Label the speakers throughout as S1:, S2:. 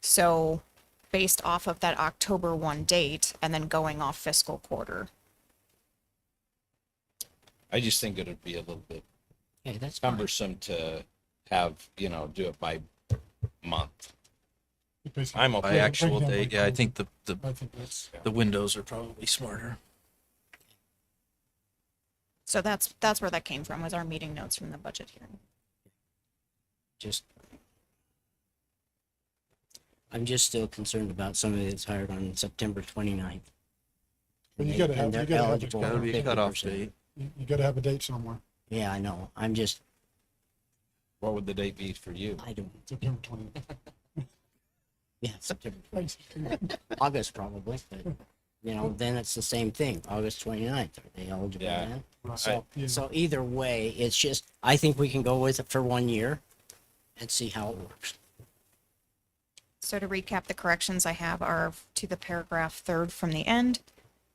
S1: So based off of that October 1 date and then going off fiscal quarter.
S2: I just think it'd be a little bit
S3: Hey, that's fine.
S2: cumbersome to have, you know, do it by month.
S4: Basically,
S2: I'm okay.
S5: By actual
S4: breakdown by
S5: date, yeah, I
S4: quarter.
S5: think the, the,
S4: I think that's.
S5: the windows are probably smarter.
S1: So that's, that's where that came from, was our meeting notes from the budget hearing.
S3: Just. I'm just still concerned about somebody that's hired on September 29th.
S4: Well, you
S3: And
S4: gotta
S3: they-
S4: have-
S3: and
S4: you
S3: they're
S4: gotta have a
S3: eligible for
S4: cutoff. Gotta
S5: be a cutoff
S3: 50%.
S5: date.
S4: You, you gotta have a date somewhere,
S3: Yeah, I know. I'm just,
S2: What would the date be for you?
S3: I don't,
S4: September twentieth.
S3: yeah, September, August probably, but, you know, then it's the same thing, Augst 29th. Are they eligible
S2: Yeah.
S3: then?
S4: Right.
S3: So,
S4: Yeah.
S3: so either way, it's just, I think we can go with it for one year and see how it works.
S1: So to recap, the corrections I have are to the paragraph third from the end,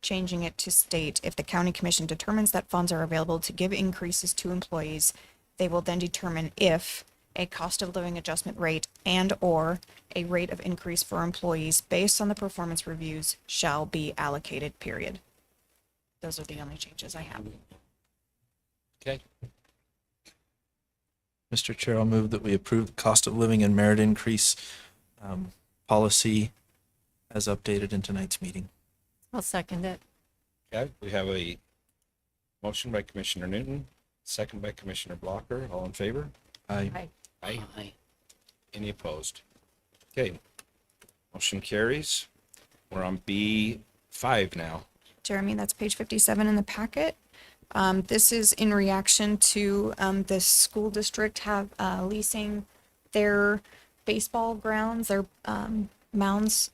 S1: changing it to state, if the county commission determines that funds are available to give increases to employees, they will then determine if a cost of living adjustment rate and/or a rate of increase for employees based on the performance reviews shall be allocated, period. Those are the only changes I have.
S2: Okay.
S5: Mr. Chair, I'll move that we approve the cost of living and merit increase um, policy as updated in tonight's meeting.
S6: I'll second it.
S2: Okay. We have a motion by Commissioner Newton, second by Commissioner Blocker. All in favor?
S5: I
S2: Aye.
S3: Aye.
S2: Any opposed? Okay. Motion carries. We're on B five now.
S1: Jeremy, that's page 57 in the packet. Um, This is in reaction to um, the school district have uh, leasing their baseball grounds, their um, mounds,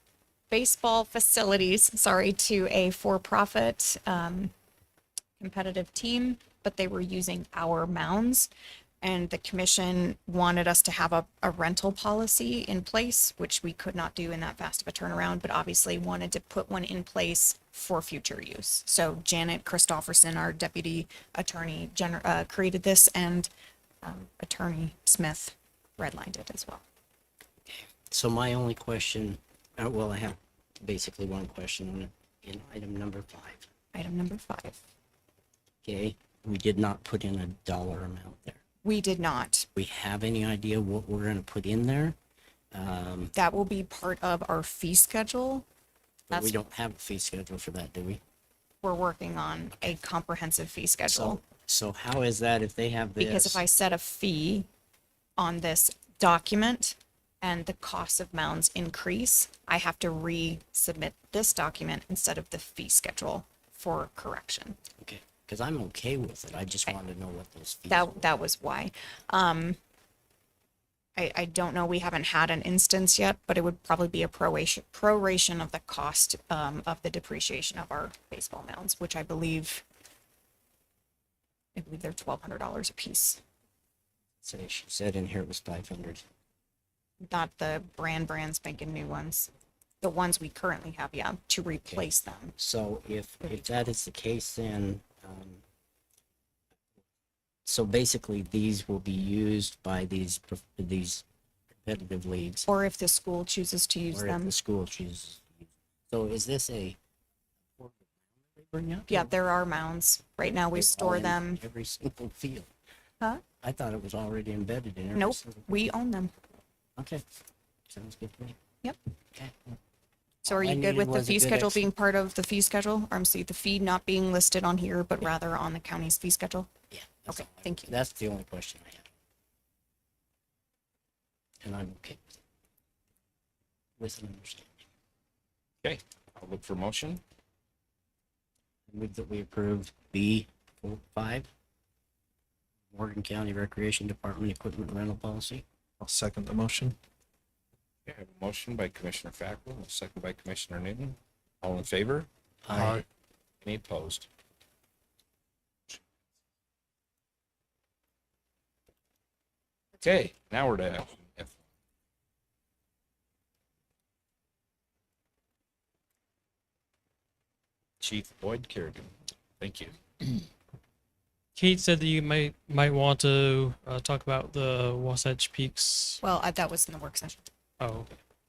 S1: baseball facilities, sorry, to a for-profit um, competitive team, but they were using our mounds. And the commission wanted us to have a, a rental policy in place, which we could not do in that fast of a turnaround, but obviously wanted to put one in place for future use. So Janet Christofferson, our deputy attorney, gener- uh, created this and um, attorney Smith redlined it as well.
S3: So my only question, uh, well, I have basically one question on it, in item number five.
S1: Item number five.
S3: Okay, we did not put in a dollar amount there.
S1: We did not.
S3: We have any idea what we're gonna put in there? Um,
S1: That will be part of our fee schedule.
S3: but
S1: That's-
S3: we don't have a fee schedule for that, do we?
S1: We're working on a comprehensive fee schedule.
S3: So, Oh, so how is that if they have this?
S1: Because if I set a fee on this document and the cost of mounds increase, I have to resubmit this document instead of the fee schedule for correction.
S3: Okay, cause I'm okay with it. I just wanted to know what those fees.
S1: That, that was why. Um, I, I don't know, we haven't had an instance yet, but it would probably be a proration, proration of the cost, um, of the depreciation of our baseball mounds, which I believe I believe they're twelve hundred dollars a piece,
S3: So she said in here it was five hundred.
S1: not the brand brands making new ones. The ones we currently have, yeah, to replace them.
S3: So if, if that is the case, then, um, so basically these will be used by these, prof- these competitive leagues
S1: Or if the school chooses to use
S3: or if
S1: them.
S3: the school chooses. to use. So is this a? Bring up?
S1: Yeah, there are mounds. Right now, we
S3: They're all
S1: store
S3: in
S1: them.
S3: Every single field.
S1: Huh?
S3: I thought it was already embedded in every.
S1: Nope,
S3: single-
S1: we own them.
S3: Okay, sounds good to me.
S1: Yep.
S3: Okay.
S1: So are
S3: I
S1: you good
S3: needed
S1: with the
S3: was a
S1: fee
S3: good
S1: schedule
S3: ex-
S1: being part of the fee schedule? Or I'm sorry, the fee not being listed on here, but rather on the county's fee schedule?
S3: Yeah. that's
S1: Okay,
S3: all I-
S1: thank you.
S3: That's the only question I have. And I'm okay with it. With an understanding.
S2: Okay. I'll look for motion.
S3: I Move that we approve B four five. Morgan County Recreation Department Equipment Rental Policy.
S5: I'll second the motion.
S2: Okay, I have a motion by Commissioner Fackrell, a second by Commissioner Newton. All in favor?
S4: Aye.
S2: Any opposed? Okay, now we're to action. F. Chief Boyd Kerrigan, thank you.
S7: Kate said that you might might want to uh, talk about the Wasatch Peaks.
S1: Well, I- that was in the work session.
S7: Oh,